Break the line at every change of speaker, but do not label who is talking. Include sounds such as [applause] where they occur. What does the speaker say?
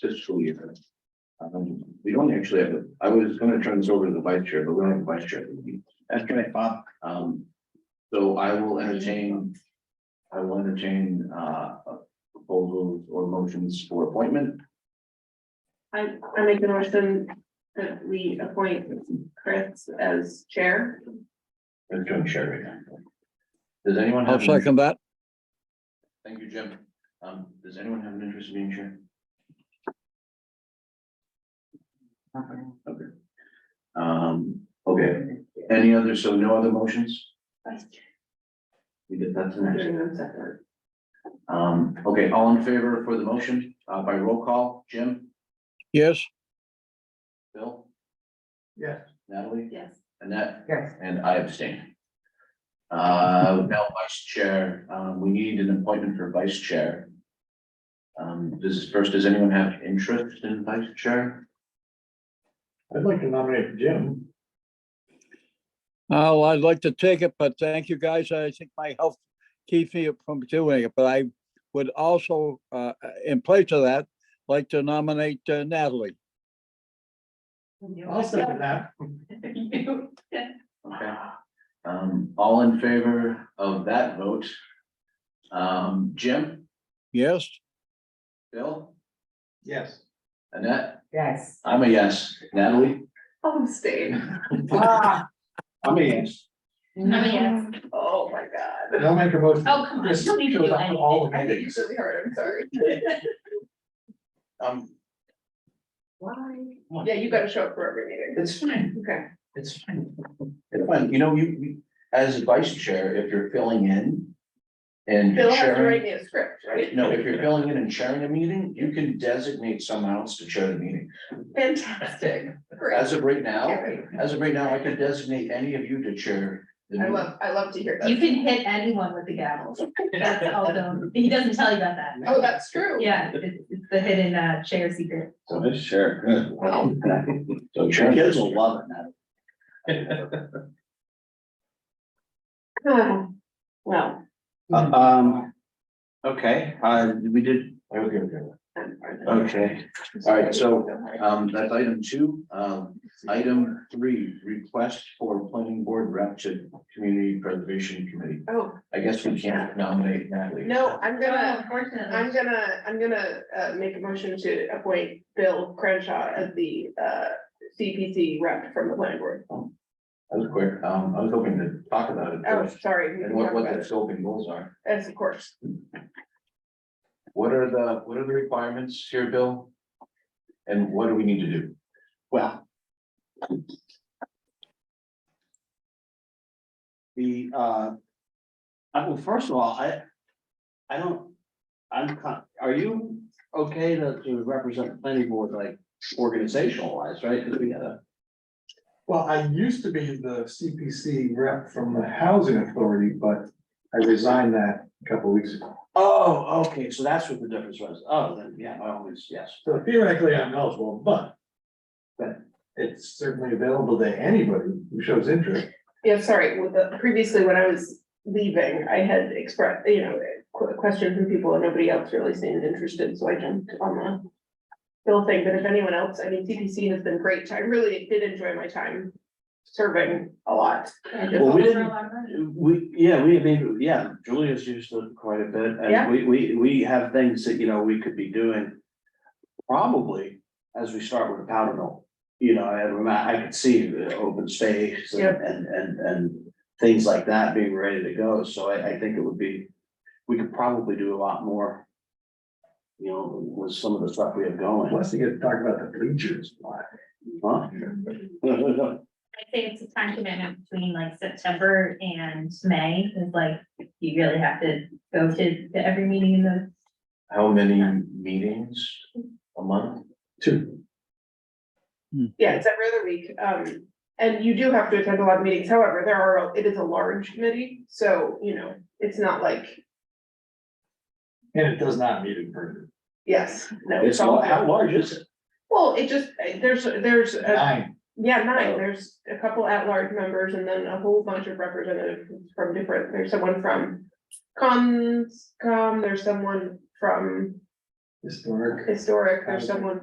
fiscal year. Um, we don't actually have, a- I was gonna turn this over to the vice chair, but we don't have a vice chair.
That's right, Bob.
Um, so I will entertain. I will entertain, uh, proposals or motions for appointment.
I, I make a motion that we appoint Chris as chair.
Let's go and share right now. Does anyone?
I'll
have an-
second that.
Thank you, Jim. Um, does anyone have an interest in being chair? Okay. Um, okay, any other, so no other motions? We did, that's the next.
Doing them separate.
Um, okay, all in favor for the motion, uh, by roll call, Jim,
Yes,
Bill,
Yes.
Natalie,
Yes.
Annette,
Yes.
and I abstain. Uh, now vice chair, um, we need an appointment for vice chair. Um, this is first, does anyone have interest in vice chair?
I'd like to nominate Jim.
oh, I'd like to take it, but thank you guys. I think my health keeps me from doing it, but I would also, uh, in place of that, like to nominate uh, Natalie.
I'll second that.
Okay, um, all in favor of that vote? Um, Jim,
Yes,
Bill,
Yes.
Annette,
Yes.
I'm a yes, Natalie?
Home [laughs] state.
Ah,
I mean,
yes.
Oh, my God.
they'll make a motion.
Oh, come on, you don't need to do
Chris shows up for All the
I think
meetings.
it's really hard, I'm sorry.
Um,
Why? Yeah, you gotta show up for every meeting.
it's fine,
Okay.
it's fine. It's fine, you know, you, you- as vice chair, if you're filling in and
Bill has to write
sharing.
me a script, right?
No, if you're filling in and sharing a meeting, you can designate someone else to chair the meeting.
[laughs] Fantastic. Great.
As of right now,
Can't wait.
as of right now, I could designate any of you to chair. the
I
meeting.
love, I love to hear
You
that.
can hit anyone with
[laughs]
the gavel. That's all them. He doesn't tell you about that.
Oh, that's true.
Yeah, it's, it's the hidden uh chair secret.
So
Oh,
this chair, good.
Wow.
So chair. Kids will love it now.
Oh, Well,
Uh,
Um,
Okay, uh, we did. Okay, okay.
I'm part of it.
Okay, all right, so, um, that's item two, um, item three, request for planning board rep to community preservation committee.
Oh,
I guess we can't nominate Natalie.
no, I'm
Oh,
gonna, I'm
Unfortunately.
gonna, I'm gonna uh make a motion to appoint Bill Crenshaw as the uh CPC rep from the planning board.
That was quick, um, I was hoping to talk about it
Oh,
first,
sorry. we
and
can
what,
talk
what
about
the
it.
scope and goals are.
Yes, of course.
What are the, what are the requirements here, Bill? And what do we need to do?
Well. The, uh, I, well, first of all, I, I don't, I'm, con- are you okay to, to represent the planning board like organizational wise, right? 'Cause we gotta,
well, I used to be the CPC rep from the housing authority, but I resigned that a couple weeks ago.
oh, okay, so that's what the difference was. Oh, then, yeah, I always, yes.
So theoretically, I'm eligible, but but it's certainly available to anybody who shows interest.
Yeah, sorry, with the, previously when I was leaving, I had expressed, you know, que- questions from people and nobody else really seemed interested, so I jumped on the Bill thing, but if anyone else, I mean, CPC has been great. I really did enjoy my time serving a lot. I just-
Well, we
For a
didn't,
long time.
We, yeah, we, I mean, yeah, Julia's used it quite a bit,
Yeah.
and we, we, we have things that, you know, we could be doing. Probably as we start with the powder mill, you know, and I, I could see the open space and,
Yeah.
and, and, and things like that being ready to go, so I, I think it would be, we could probably do a lot more. You know, with some of the stuff we have going,
Plus, you get to talk about the bleachers.
huh?
I'd say it's a time commitment between like September and May is like, you really have to go to to every meeting in those.
[laughs] How many meetings a month?
Two.
Yeah, it's every other week, um, and you do have to attend a lot of meetings, however, there are, it is a large committee, so, you know, it's not like,
And it does not meet in person.
yes, no,
It's,
it's all.
lar- how large is it?
Well, it just, eh, there's, there's, a-
Nine.
yeah,
Oh.
nine, there's a couple at-large members and then a whole bunch of representatives from different, there's someone from Conscom, there's someone from
historic.
historic or
Okay.
someone